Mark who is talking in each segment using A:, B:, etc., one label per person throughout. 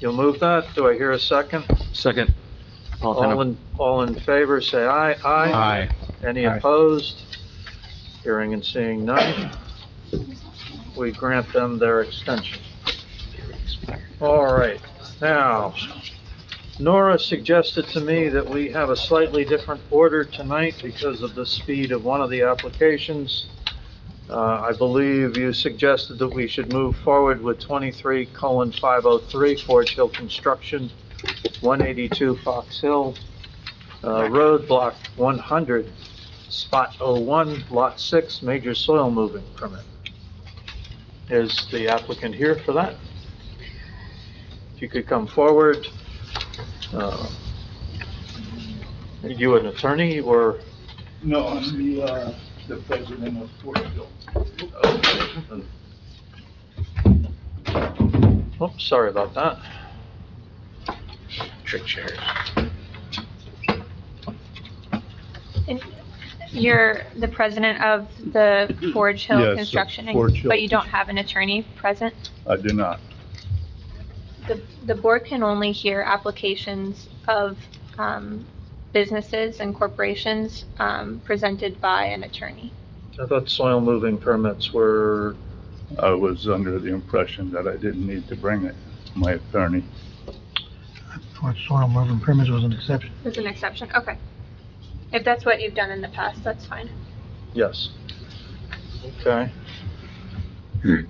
A: You'll move that? Do I hear a second?
B: Second. Paul
A: All
B: Fenner.
A: in, all in favor, say aye. Aye. Any
B: Aye.
A: opposed? Hearing and seeing none. We grant them their extension. All right, now, Nora suggested to me that we have a slightly different order tonight because of the speed of one of the applications. Uh, I believe you suggested that we should move forward with 23 colon 503 Forge Hill Construction, 182 Fox Hill, uh, Road Block 100, Spot 01, Lot 6, Major Soil Moving Permit. Is the applicant here for that? If you could come forward. uh, Are you an attorney or,
C: No, I'm the, uh, the president of Fortville.
A: oh, sorry about that.
D: You're the president of the Forge
C: Yes,
D: Hill
C: of
D: Construction,
C: Forge Hill
D: but you don't have an attorney present?
C: I do not.
D: The, the board can only hear applications of, um, businesses and corporations, um, presented by an attorney.
A: I thought soil moving permits were,
C: I was under the impression that I didn't need to bring it, my attorney.
E: For soil moving permits was an exception.
D: There's an exception, okay. If that's what you've done in the past, that's fine.
A: yes. Okay.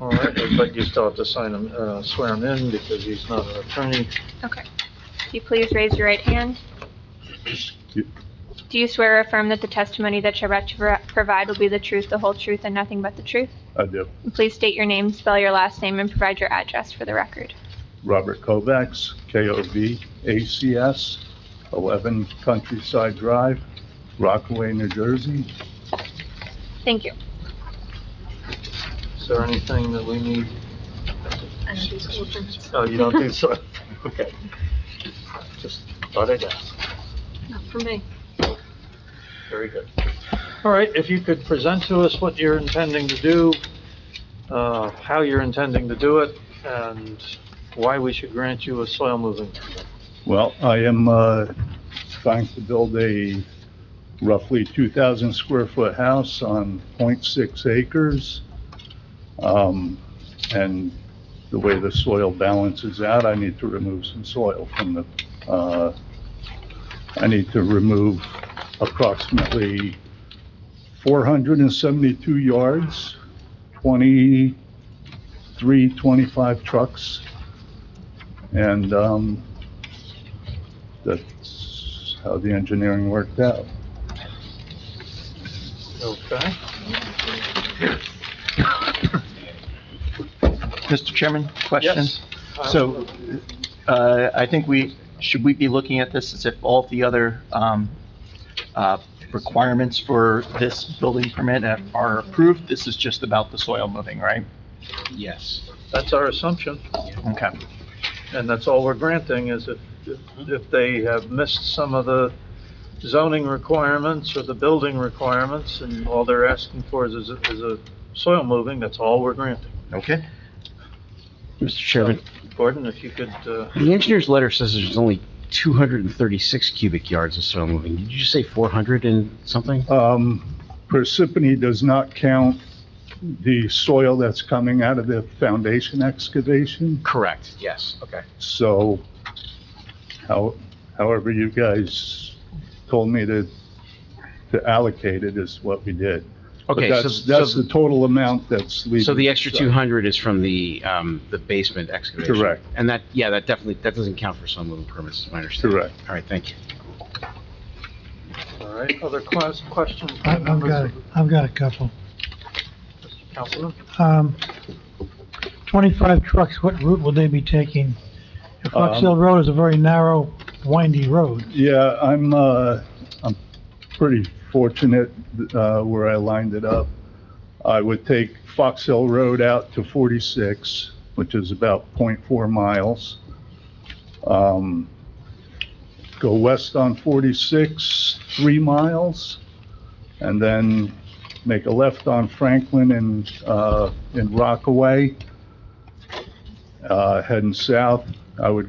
A: All right, but you still have to sign him, uh, swear him in because he's not an attorney.
D: Okay. If you please raise your right hand.
C: Yep.
D: Do you swear or affirm that the testimony that you're about to pro- provide will be the truth, the whole truth, and nothing but the truth?
C: I do.
D: And Please state your name, spell your last name, and provide your address for the record.
C: Robert Kovacs, K-O-V-A-C-S, 11 Countryside Drive, Rockaway, New Jersey.
D: Thank you.
A: Is there anything that we need? Oh, you don't do so? Okay. Just thought I'd ask.
F: Not for me.
A: Very good. All right, if you could present to us what you're intending to do, uh, how you're intending to do it, and why we should grant you a soil moving.
C: Well, I am uh, trying to build a roughly 2,000 square foot house on .6 acres. Um, And the way the soil balances out, I need to remove some soil from the, uh, I need to remove approximately 472 yards, 23, 25 trucks. And um, that's how the engineering worked out.
A: Okay?
G: Mr. Chairman, question?
A: Yes. Uh,
G: So, uh, I think we, should we be looking at this as if all the other um, uh, requirements for this building permit are approved? This is just about the soil moving, right?
H: Yes.
A: That's our assumption,
G: Okay.
A: and that's all we're granting, is if, if- if they have missed some of the zoning requirements or the building requirements, and all they're asking for is, is a- is a soil moving, that's all we're granting.
G: Okay.
H: Mr. Chairman,
A: Gordon, if you could, uh,
H: the engineer's letter says there's only 236 cubic yards of soil moving. Did you say 400 and something?
C: Um, Parsippany does not count the soil that's coming out of the foundation excavation,
H: Correct, yes, okay.
C: so how, however you guys told me to, to allocate it is what we did. But
H: Okay, so,
C: that's, that's
H: so,
C: the total amount that's leaving.
H: so the extra 200 is from the, um, the basement excavation?
C: Correct.
H: And that, yeah, that definitely, that doesn't count for soil moving permits, is my understanding.
C: Correct.
H: All right, thank you.
A: all right, other ques- questions? by
E: I've, I've
A: members
E: got,
A: of the
E: I've got a couple.
A: Councilman?
E: Um, twenty-five trucks, what route will they be taking? If Fox
C: Um,
E: Hill Road is a very narrow, windy road.
C: Yeah, I'm, uh, I'm pretty fortunate, uh, where I lined it up. I would take Fox Hill Road out to 46, which is about 0.4 miles. Um, go west on 46, three miles, and then make a left on Franklin and, uh, in Rockaway. Uh, heading south, I would